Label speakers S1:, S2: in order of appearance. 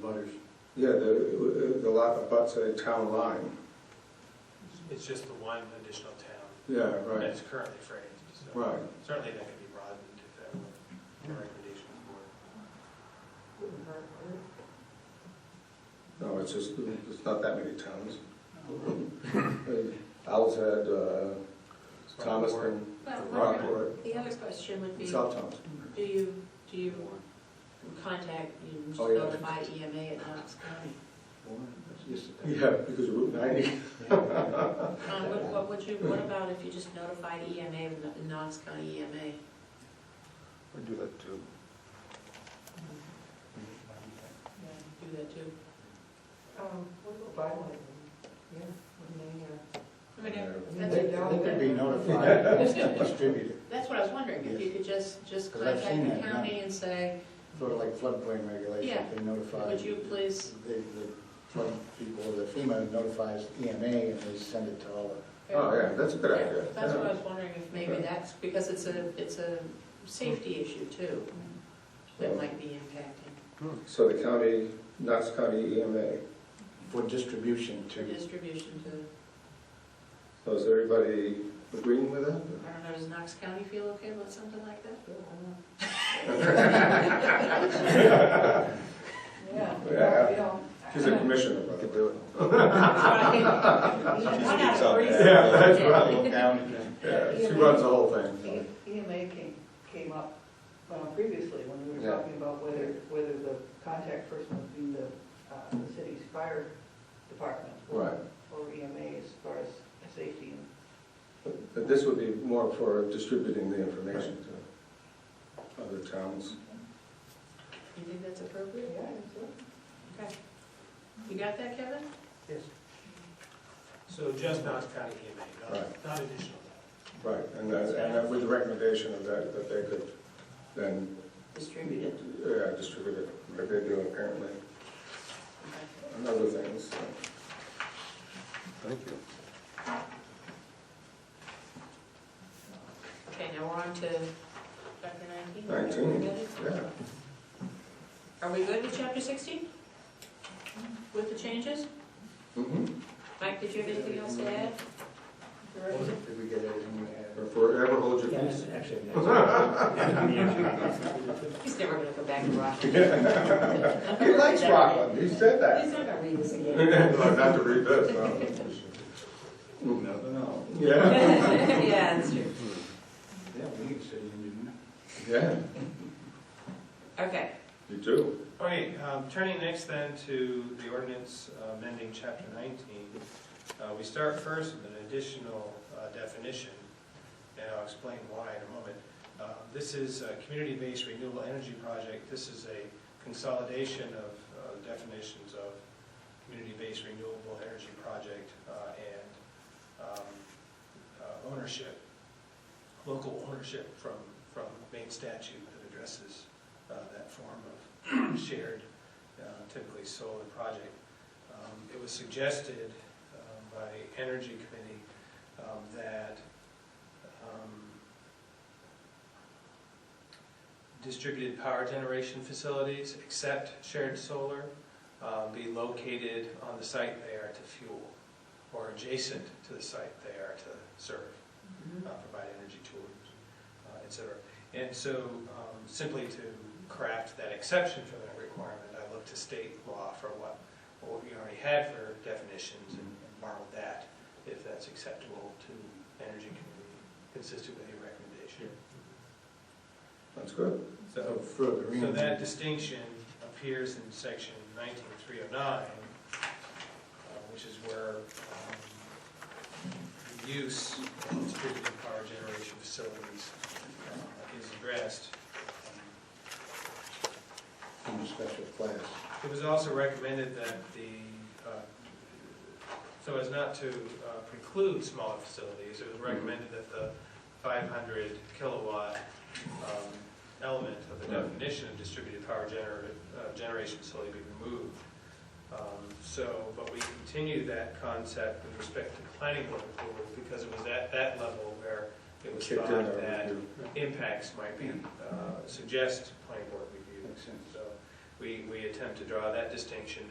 S1: butters.
S2: Yeah, the, the lot abuts a town line.
S3: It's just the one additional town
S2: Yeah,
S3: that
S2: right,
S3: is currently phrased, so
S2: right.
S3: certainly that could be broadened if that were a recommendation of the board.
S2: No, it's just, it's not that many towns. Al's had uh,
S3: So
S2: Thomaston,
S4: Well,
S2: Rockport,
S4: the other question would be,
S2: South Thompson.
S4: do you, do you contact, you just
S2: Oh, yeah.
S4: notify EMA at Knox County?
S2: Yeah, because of Route 90.
S4: Um, What, what would you, what about if you just notify EMA, of Kno- Knox County E EMA?
S5: We do that too.
S4: Do that too? I mean,
S5: They
S4: that's-
S5: they could be notified, and distributed,
S4: That's what I was wondering, if you could just, just
S5: 'Cause I've seen
S4: contact the
S5: that, yeah.
S4: county and say,
S5: sort of like floodplain regulation,
S4: Yeah.
S5: they notify.
S4: would you please,
S5: The, the flood people, the FEMA notifies EMA and they send it to all the.
S2: Oh, yeah, that's a good
S4: Yeah,
S2: idea.
S4: That's what I
S2: Yeah.
S4: was wondering, if maybe that's, because it's a, it's a safety issue too, that might be impacting
S2: So the county, Knox County E EMA.
S5: For distribution
S4: for
S5: to,
S4: distribution to,
S2: So is everybody agreeing with that?
S4: I don't know, does Knox County feel okay about something like that?
S2: Yeah. She's a commissioner, by the way.
S5: do it.
S4: Right. One out of three.
S2: Yeah, that's right.
S5: Look down again.
S2: Yeah, she runs the whole thing. so.
S6: EMA came, came up uh, previously when we
S2: Yeah.
S6: were talking about whether, whether the contact person would be the, uh, the city's fire department. or-
S2: Right.
S6: Or EMA as far as safety and
S2: But this would be more for distributing the information to other towns.
S4: You think that's appropriate?
S6: Yeah, and so-
S4: Okay. You got that, Kevin?
S3: So just Knox County EMA,
S2: Right.
S3: not, not additional town.
S2: Right, and that, and that with the recommendation of that, that they could then,
S4: Distribute it.
S2: yeah, distribute it, like they do apparently,
S4: Okay.
S2: and other things. so.
S5: Thank you.
S4: Okay, now we're on to chapter nineteen.
S2: Nineteen. Yeah,
S4: Are we good with chapter sixteen? With the changes?
S2: mhm.
S4: Mike, did you have anything else to add?
S5: Did we get everything we
S2: Or
S5: had?
S2: forever hold your peace.
S4: He's never gonna go back to Rockland.
S2: He likes Rockland, he said that.
S4: He's not gonna read this again.
S2: Well, Not to read this, no.
S5: Never know.
S2: Yeah,
S4: Yeah, that's true.
S5: Yeah, we need a city engineer.
S2: yeah,
S4: Okay,
S2: you do.
S3: Okay, um, turning next then to the ordinance uh, amending chapter 19. Uh, We start first with an additional uh, definition, and I'll explain why in a moment. Uh, This is a community-based renewable energy project. This is a consolidation of uh, definitions of community-based renewable energy project uh, and um, uh, ownership, local ownership from, from main statute that addresses uh, that form of shared, uh, typically solar project. Um, It was suggested um, by Energy Committee um, that um, distributed power generation facilities, except shared solar, uh, be located on the site they are to fuel or adjacent to the site they are to serve
S4: Mm-hmm.
S3: uh, provide energy tours, uh, et cetera. And so um, simply to craft that exception for that requirement, I looked to state law for what, what we already had for definitions and borrowed that, if that's acceptable to energy community, consistent with your recommendation.
S2: That's good.
S3: So,
S5: further in.
S3: so that distinction appears in section 19309, uh, which is where um, the use of distributed power generation facilities uh, is addressed.
S5: In a special class.
S3: It was also recommended that the, uh, so as not to uh, preclude smaller facilities, it was recommended that the 500 kilowatt um, element of the
S2: Right.
S3: definition of distributed power gener- uh, generation facility be removed. Um, So, but we continue that concept with respect to planning board approval, because it was at that level where it was
S2: Kicked in
S3: thought
S2: our
S3: that
S2: review.
S3: impacts might be, uh, suggest planning board review.
S5: Makes sense.
S3: So we, we attempt to draw that distinction